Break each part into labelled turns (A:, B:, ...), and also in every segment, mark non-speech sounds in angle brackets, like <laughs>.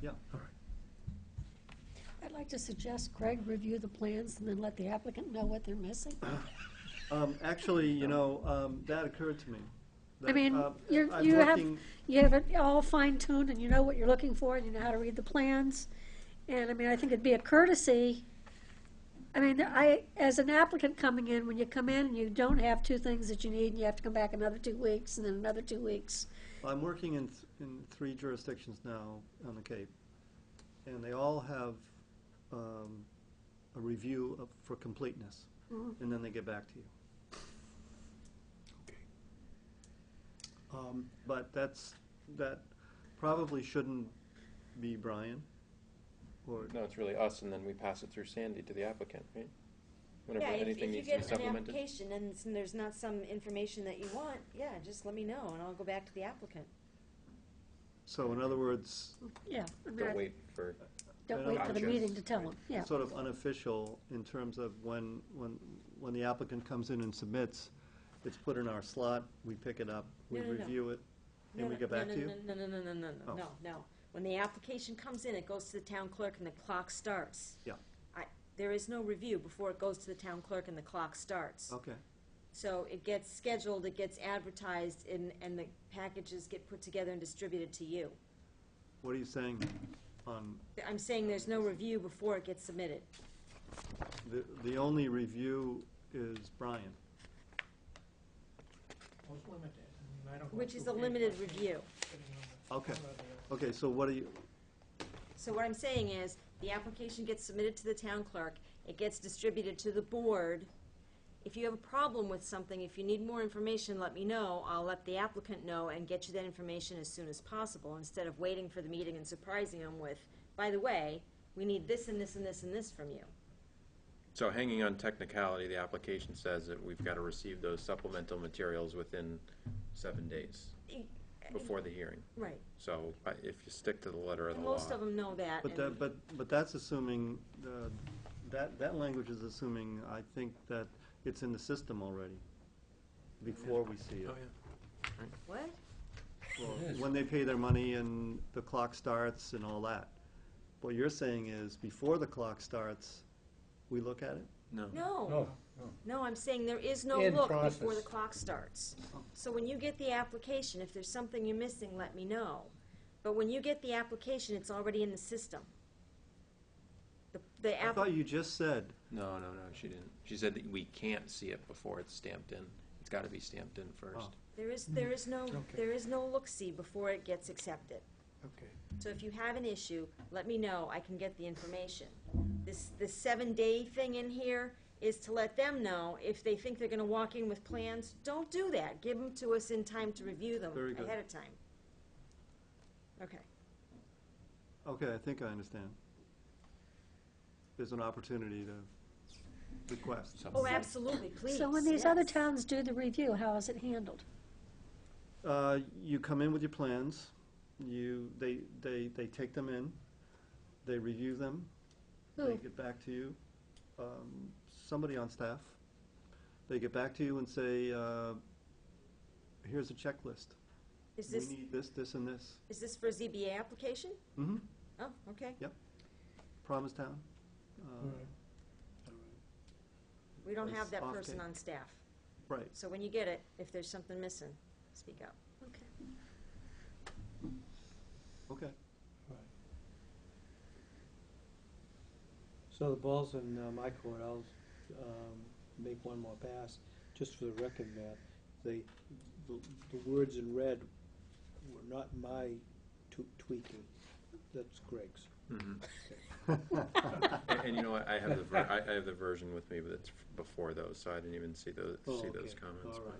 A: Yeah.
B: All right.
C: I'd like to suggest Craig review the plans and then let the applicant know what they're missing.
A: Um, actually, you know, um, that occurred to me.
C: I
A: That,
C: mean,
A: uh,
C: you're,
A: I'm
C: you have,
A: looking-
C: you have it all fine tuned and you know what you're looking for and you know how to read the plans. And I mean, I think it'd be a courtesy. I mean, I, as an applicant coming in, when you come in and you don't have two things that you need and you have to come back another two weeks and then another two weeks.
A: I'm working in, th- in three jurisdictions now on the Cape, and they all have, um, a review of, for completeness,
C: Mhm.
A: and then they get back to you.
B: Okay.
A: Um, But that's, that probably shouldn't be Brian, or,
D: No, it's really us, and then we pass it through Sandy to the applicant, right? Whenever
E: Yeah, if-
D: anything needs to be
E: If you get an
D: supplemented.
E: application and it's- and there's not some information that you want, yeah, just let me know, and I'll go back to the applicant.
A: so in other words,
C: Yeah. I mean, I-
D: Don't wait for,
C: Don't wait for the
D: Gotcha.
C: meeting to tell them, yeah.
A: sort of unofficial in terms of when, when, when the applicant comes in and submits, it's put in our slot, we pick it up, we
E: No, no, no.
A: review it,
E: No,
A: and we
E: no,
A: get
E: no,
A: back
E: no,
A: to you?
E: No, no, no, no, no,
A: Oh.
E: no, no, no. When the application comes in, it goes to the town clerk and the clock starts.
A: Yeah.
E: I, there is no review before it goes to the town clerk and the clock starts.
A: Okay,
E: So it gets scheduled, it gets advertised, and, and the packages get put together and distributed to you.
A: what are you saying on,
E: I'm saying there's no review before it gets submitted.
A: the, the only review is Brian?
F: Well, it's limited. I mean, I don't go
E: Which is a
F: through
E: limited
F: papers and
E: review.
F: sitting on the
A: Okay,
F: floor of the-
A: okay, so what do you,
E: So what I'm saying is, the application gets submitted to the town clerk, it gets distributed to the board. If you have a problem with something, if you need more information, let me know, I'll let the applicant know and get you that information as soon as possible, instead of waiting for the meeting and surprising them with, by the way, we need this and this and this and this from you.
D: so hanging on technicality, the application says that we've got to receive those supplemental materials within seven days
E: E-
D: before the hearing.
E: Right,
D: So I- if you stick to the letter of the
E: and
D: law.
E: most of them know that,
A: but
E: Uh, and
A: that, but, but that's assuming, uh, that, that language is assuming, I think, that it's in the system already, before we see it.
D: Oh, yeah.
E: what?
A: Well,
B: It is.
A: when they pay their money and the clock starts and all that. What you're saying is, before the clock starts, we look at it?
D: No.
E: No, no, I'm saying there is no
F: In
E: look before
F: process.
E: the clock starts. So when you get the application, if there's something you're missing, let me know. But when you get the application, it's already in the system. The, the
A: I
E: app,
A: thought you just said,
D: No, no, no, she didn't. She said that we can't see it before it's stamped in. It's got to be stamped in first.
A: Oh.
E: there is, there is no,
F: Okay.
E: there is no look-see before it gets accepted.
F: Okay.
E: So if you have an issue, let me know, I can get the information. This, this seven-day thing in here is to let them know, if they think they're gonna walk in with plans, don't do that. Give them to us in time to review them
A: Very good.
E: ahead of time. Okay.
A: okay, I think I understand. There's an opportunity to request.
E: Oh,
D: Supplemental.
E: absolutely, please.
C: So when these other
E: yes.
C: towns do the review, how is it handled?
A: Uh, you come in with your plans, you, they, they, they take them in, they review them, they
E: Oh.
C: Who?
A: get back to you, um, somebody on staff. They get back to you and say, uh, here's a checklist.
E: Is
A: We
E: this,
A: need this, this, and this.
E: is this for a ZBA application?
A: Mm-hmm.
E: Oh, okay.
A: Promise Town. Uh,
F: All right. All right.
E: We don't
A: It's
E: have that
A: off
E: person
A: date.
E: on staff.
A: Right.
E: So when you get it, if there's something missing, speak up.
C: Okay.
A: Okay.
G: So the ball's in uh, my court, I'll um, make one more pass, just for the record, Matt. The, the the words in red were not my tw- tweaking, that's Greg's.
D: Mhm.
G: Mm-hmm.
D: And, and you know what? I have the
G: <laughs>
D: ver- I, I have the version with me, but it's f- before those, so I didn't even see those
G: Oh,
D: see those
G: okay,
D: comments.
G: all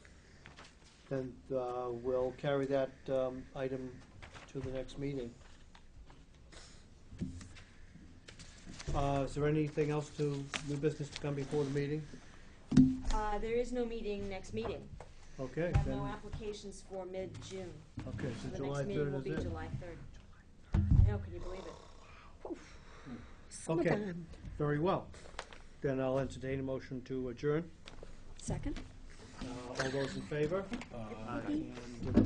D: but-
G: right. Then uh, we'll carry that um, item to the next meeting. Uh, Is there anything else to, new business to come before the meeting?
E: Uh, there is no meeting next meeting.
G: Okay,
E: We have
G: then,
E: no applications for mid-June.
G: okay,
E: So
G: so
E: the
G: July
E: next meeting will
G: third
E: be
G: is it.
E: July third. I know, can you believe it?
C: Summertime.
G: Very well. Then I'll entertain a motion to adjourn.
C: Second?
G: Uh, All those in favor?
A: Aye.
G: And